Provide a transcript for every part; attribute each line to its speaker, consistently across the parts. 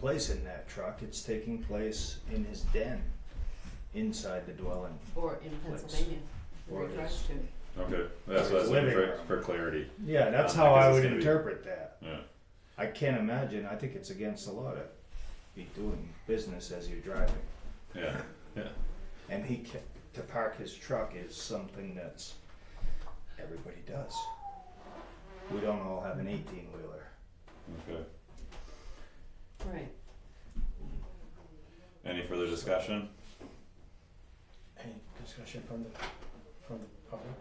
Speaker 1: place in that truck. It's taking place in his den inside the dwelling.
Speaker 2: Or in
Speaker 1: Place.
Speaker 2: Pennsylvania, where
Speaker 1: Or
Speaker 2: it drives
Speaker 1: is-
Speaker 2: to.
Speaker 3: Okay, that's what I was
Speaker 1: Living
Speaker 3: looking for,
Speaker 1: room.
Speaker 3: for clarity.
Speaker 1: Yeah, that's
Speaker 3: Um,
Speaker 1: how
Speaker 3: because
Speaker 1: I
Speaker 3: it's
Speaker 1: would
Speaker 3: gonna be-
Speaker 1: interpret that.
Speaker 3: Yeah.
Speaker 1: I can't imagine. I think it's against the law to be doing business as you're driving.
Speaker 3: Yeah.
Speaker 1: And he ca- to park his truck is something that's everybody does. We don't all have an eighteen wheeler.
Speaker 3: Okay.
Speaker 2: Right.
Speaker 3: Any further discussion
Speaker 4: Any discussion from the, from the public?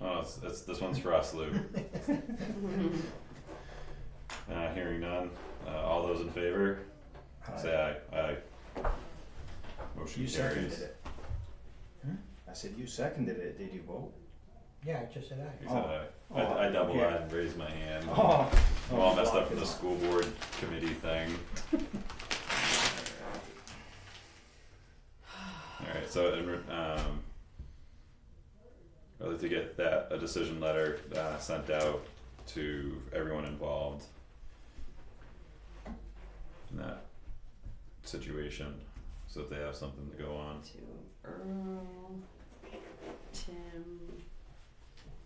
Speaker 3: Oh, it's, it's, this one's for us, Lou.
Speaker 2: Mm-hmm.
Speaker 3: Uh, hearing none, uh, all those in favor, say aye, aye. Motion
Speaker 1: Uh, You seconded
Speaker 3: carries.
Speaker 1: it.
Speaker 4: Hmm?
Speaker 1: I said you seconded it. Did you vote?
Speaker 4: Yeah, I just said aye.
Speaker 3: You said aye. I, I double eyed and raised my hand.
Speaker 1: Oh,
Speaker 3: I'm all messed up from the school board committee thing. Alright, so in, re- um. I'd like to get that, a decision letter, uh, sent out to everyone involved. In that situation, so that they have something to go on.
Speaker 2: To Earl, Tim,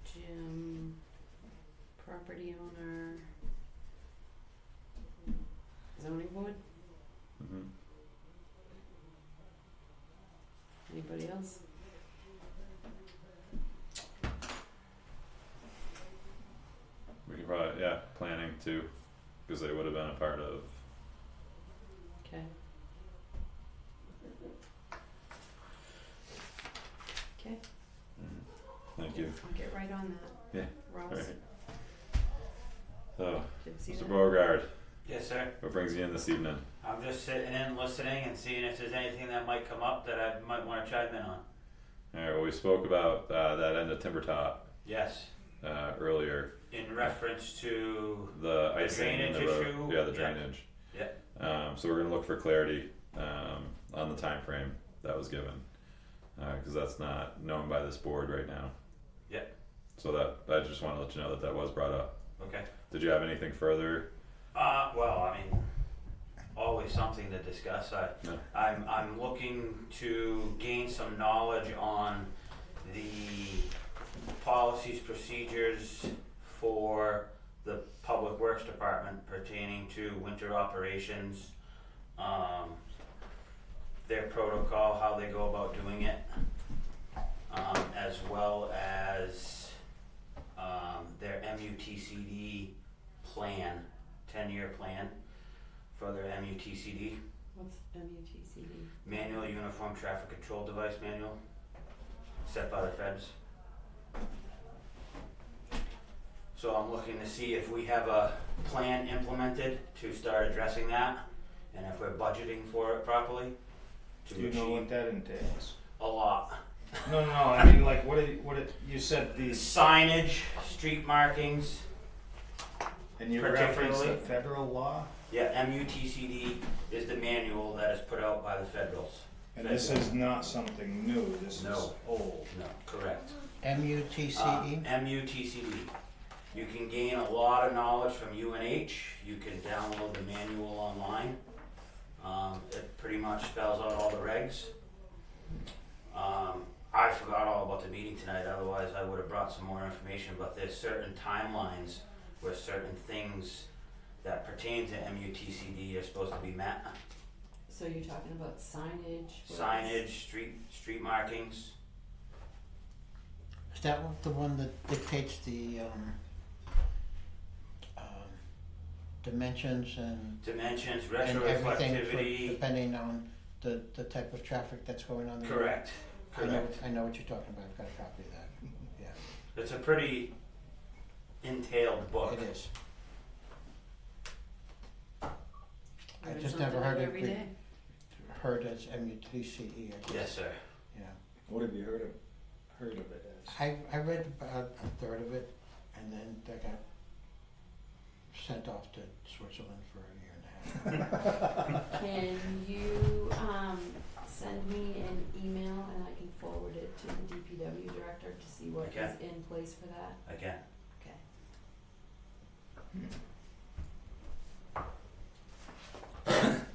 Speaker 2: Jim, property owner, zoning board,
Speaker 3: Mhm.
Speaker 2: anybody else?
Speaker 3: We could probably, yeah, planning too, cause they would have been a part of,
Speaker 2: Okay. Okay,
Speaker 3: thank you,
Speaker 2: I'll get right on that.
Speaker 3: Yeah,
Speaker 2: Ross,
Speaker 3: alright. So,
Speaker 2: did you see
Speaker 3: Mr.
Speaker 2: that?
Speaker 3: Beauregard,
Speaker 5: Yes, sir.
Speaker 3: what brings you in this evening?
Speaker 5: I'm just sitting in, listening, and seeing if there's anything that might come up that I might want to chime in on.
Speaker 3: Alright, well, we spoke about uh, that end of Timber Top
Speaker 5: Yes,
Speaker 3: uh, earlier,
Speaker 5: in reference to
Speaker 3: the icing in the
Speaker 5: drainage
Speaker 3: road.
Speaker 5: issue?
Speaker 3: Yeah, the
Speaker 5: Yeah.
Speaker 3: drainage.
Speaker 5: Yeah.
Speaker 3: Um, so we're gonna look for clarity um, on the time frame that was given, because that's not known by this board right now.
Speaker 5: Yeah.
Speaker 3: So that I just want to let you know that that was brought up.
Speaker 5: okay.
Speaker 3: Did you have anything further?
Speaker 5: Uh, well, I mean, always something to discuss. I,
Speaker 3: No.
Speaker 5: I'm, I'm looking to gain some knowledge on the policies, procedures for the Public Works Department pertaining to winter operations. Um, their protocol, how they go about doing it. Um, as well as, um, their MUTCD plan, ten-year plan for their MUTCD,
Speaker 2: What's MUTCD?
Speaker 5: Manual Uniform Traffic Control Device Manual, set by the feds. So I'm looking to see if we have a plan implemented to start addressing that, and if we're budgeting for it properly
Speaker 1: Do
Speaker 5: to
Speaker 1: you know what
Speaker 5: achieve
Speaker 1: that entails?
Speaker 5: a lot.
Speaker 1: No, no, no. I mean, like, what? It, what? It, you said these,
Speaker 5: Signage, street markings,
Speaker 1: and you referenced the
Speaker 5: Particularly-
Speaker 1: federal law,
Speaker 5: yeah, MUTCD is the manual that is put out by the federals.
Speaker 1: and this is not something new. This is
Speaker 5: No.
Speaker 1: old.
Speaker 5: No, correct. Uh,
Speaker 4: MUTCE?
Speaker 5: MUTCD. E. You can gain a lot of knowledge from UNH. You can download the manual online. Um, it pretty much spells out all the regs. Um, I forgot all about the meeting tonight, otherwise I would have brought some more information, but there's certain timelines where certain things that pertain to MUTCD E are supposed to be met.
Speaker 2: So you're talking about signage? what else?
Speaker 5: Signage, street, street markings.
Speaker 4: Is that one- the one that dictates the, um, um, dimensions and,
Speaker 5: Dimensions,
Speaker 4: and everything for-
Speaker 5: retroreflectivity.
Speaker 4: depending on the, the type of traffic that's going on? the road?
Speaker 5: Correct,
Speaker 4: I know,
Speaker 5: correct.
Speaker 4: I know what you're talking about, I've got a copy of that,
Speaker 5: It's a pretty entailed book.
Speaker 4: it is. I
Speaker 2: Learn
Speaker 4: just never
Speaker 2: something
Speaker 4: heard
Speaker 2: new
Speaker 4: it
Speaker 2: every
Speaker 4: be-
Speaker 2: day.
Speaker 4: Heard as MUTCE, E, I guess.
Speaker 5: Yes, sir.
Speaker 4: Yeah.
Speaker 1: What have you heard of? Heard of it as?
Speaker 4: I, I read about a third of it, and then I got sent off to Switzerland for a year and a half.
Speaker 2: Can you, um, send me an email and I can forward it to the DPW director to see what
Speaker 5: Okay.
Speaker 2: is in place for that?
Speaker 5: Again,
Speaker 2: Okay.